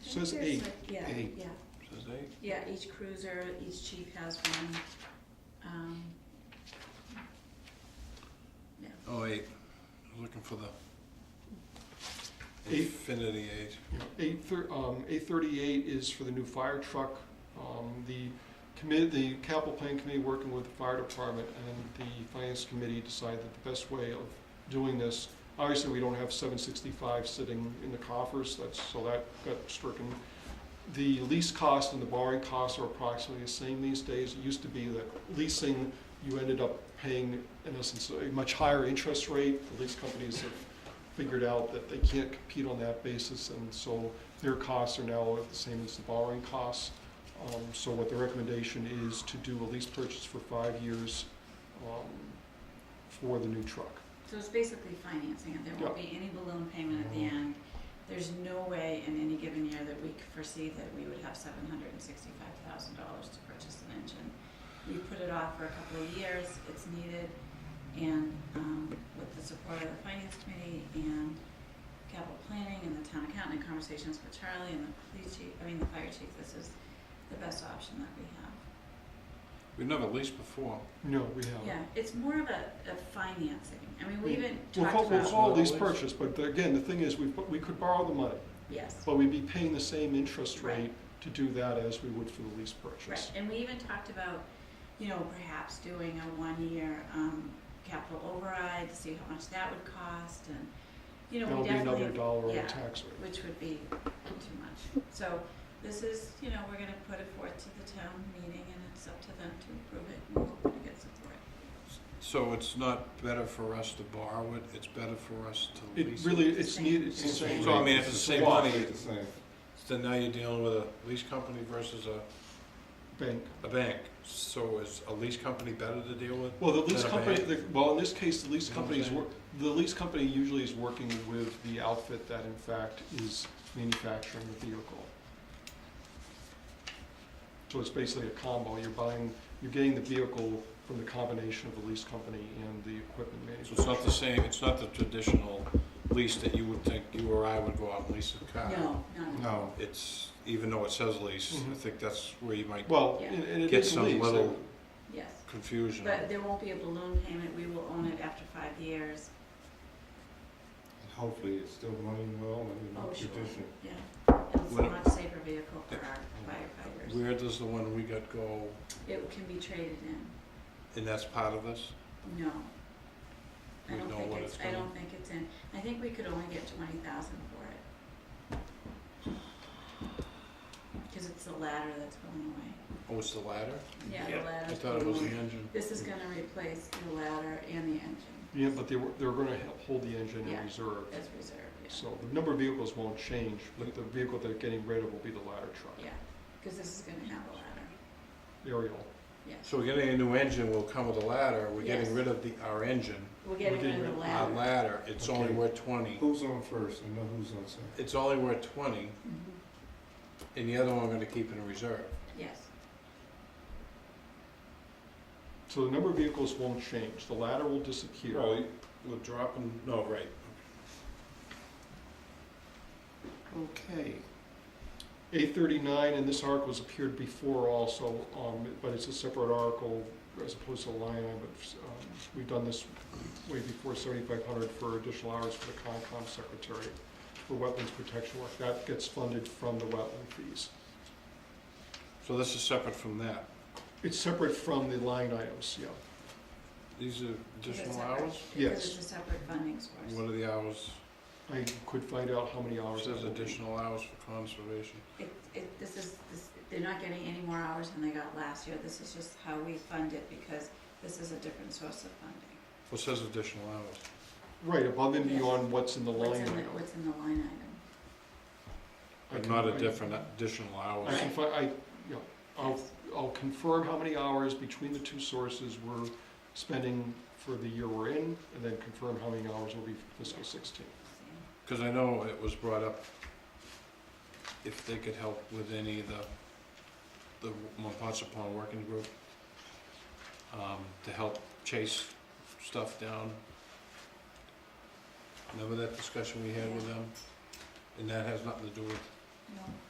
Says there's eight. like- Yeah, Eight. yeah, Says eight. yeah, each cruiser, each chief has one, um, Oh, eight. I was looking for the Eight. infinity age. Eight thir- um, eight thirty-eight is for the new fire truck. Um, the commit, the capital plan committee working with the fire department and the finance committee decided that the best way of doing this, obviously, we don't have seven sixty-five sitting in the coffers, that's, so that got stricken. The lease cost and the borrowing costs are approximately the same these days. It used to be that leasing, you ended up paying, in essence, a much higher interest rate. The lease companies have figured out that they can't compete on that basis, and so their costs are now the same as the borrowing costs. Um, So what the recommendation is to do a lease purchase for five years um, for the new truck. so it's basically financing it, there won't be any balloon payment at the Mm-hmm. end. There's no way in any given year that we could foresee that we would have seven hundred and sixty-five thousand dollars to purchase an engine. We put it off for a couple of years, it's needed, and, um, with the support of the finance committee and capital planning and the town accountant, and conversations with Charlie and the police chief, I mean, the fire chief, this is the best option that we have. We've never leased before. No, we haven't. Yeah, it's more of a, a financing. I mean, we even We'll talked call, we'll about, call Well, lease lease. purchase, but the- again, the thing is, we, we could borrow the money, yes, but we'd be paying the same interest Right. rate to do that as we would for the lease right, purchase. and we even talked about, you know, perhaps doing a one-year, um, capital override to see how much that would cost and, you know, That'll we be another definitely, dollar on the yeah. tax rate. which would be too much. So this is, you know, we're gonna put it forth to the town meeting and it's up to them to approve it and we'll hope to get support. So it's not better for us to borrow it, it's better for us to It lease it. really, it's needed, it's the same. So I mean, if it's the same money, It's the same. so now you're dealing with a lease company versus a, Bank. a bank. So is a lease company better to deal with? Well, the lease Than a company, bank. the- well, in this case, the lease You know what company is, I'm wor- the lease company usually is working with the outfit that in fact is manufacturing the vehicle. So it's basically a combo, you're buying, you're getting the vehicle from the combination of the lease company and the equipment So it's not the manufacturer. same, it's not the traditional lease that you would think you or I would go out and lease a car. No, no, No. It's, even though it says lease, I Mhm. think that's where you might Well, Yeah. and and it get is a some lease. little yes. confusion. But there won't be a balloon payment. We will own it after five years. And Hopefully it's still running well and Oh, not sure. tradition. Yeah, and it's a What- much safer vehicle for our firefighters. Where does the one we got go, It can be traded in, and that's part of this? no. I We don't know think what it's, it's I gonna- don't think it's in, I think we could only get twenty thousand for it. Cause it's the ladder that's going away. Oh, it's the ladder? Yeah, the I ladder's thought it going was the away. engine. This is gonna replace the ladder and the engine Yeah, but they were, they were gonna he- hold the engine Yeah. in reserve. as reserve, yeah. So the number of vehicles won't change, but the vehicle they're getting rid of will be the ladder truck, Yeah, cause this is gonna have a ladder, aerial. yes. So we're getting a new engine, will come with a ladder, we're Yes. getting rid of the, our engine, We're getting getting rid of the rid our ladder. ladder, it's only Okay. worth twenty. Who's on first? I know who's on second. It's only worth twenty, Mhm. and the other one we're gonna keep in reserve. Yes, So the number of vehicles won't change, the ladder will disappear. Well, we're dropping, no, right. Okay. Eight thirty-nine, and this article has appeared before also, um, but it's a separate article as opposed to a line item. But, um, we've done this way before, seventy-five hundred for additional hours for the Concom secretary for wetlands protection work. That gets funded from the wetland fees. So this is separate from that. It's separate from the line items, yeah. These are Because additional it's separate. hours? Because Yes. it's a separate funding source. What are the hours? I could find out how many hours. Says that will be. additional hours for conservation. It, it, this is, this, they're not getting any more hours than they got last year, this is just how we fund it, because this is a different source of funding. Well, it says additional hours. Right, above and Yes. beyond what's in the What's line in the, item. what's in the line item? I But can- not a I- different, additional I hours. can fi- I, yeah, I'll Yes. I'll confirm how many hours between the two sources we're spending for the year we're in, and then confirm how many hours will be for fiscal sixteen. See? Because I know it was brought up if they could help with any of the, the Montponcepon Working Group, um, to help chase stuff down. Remember that discussion we had with them? And that has nothing to do with No,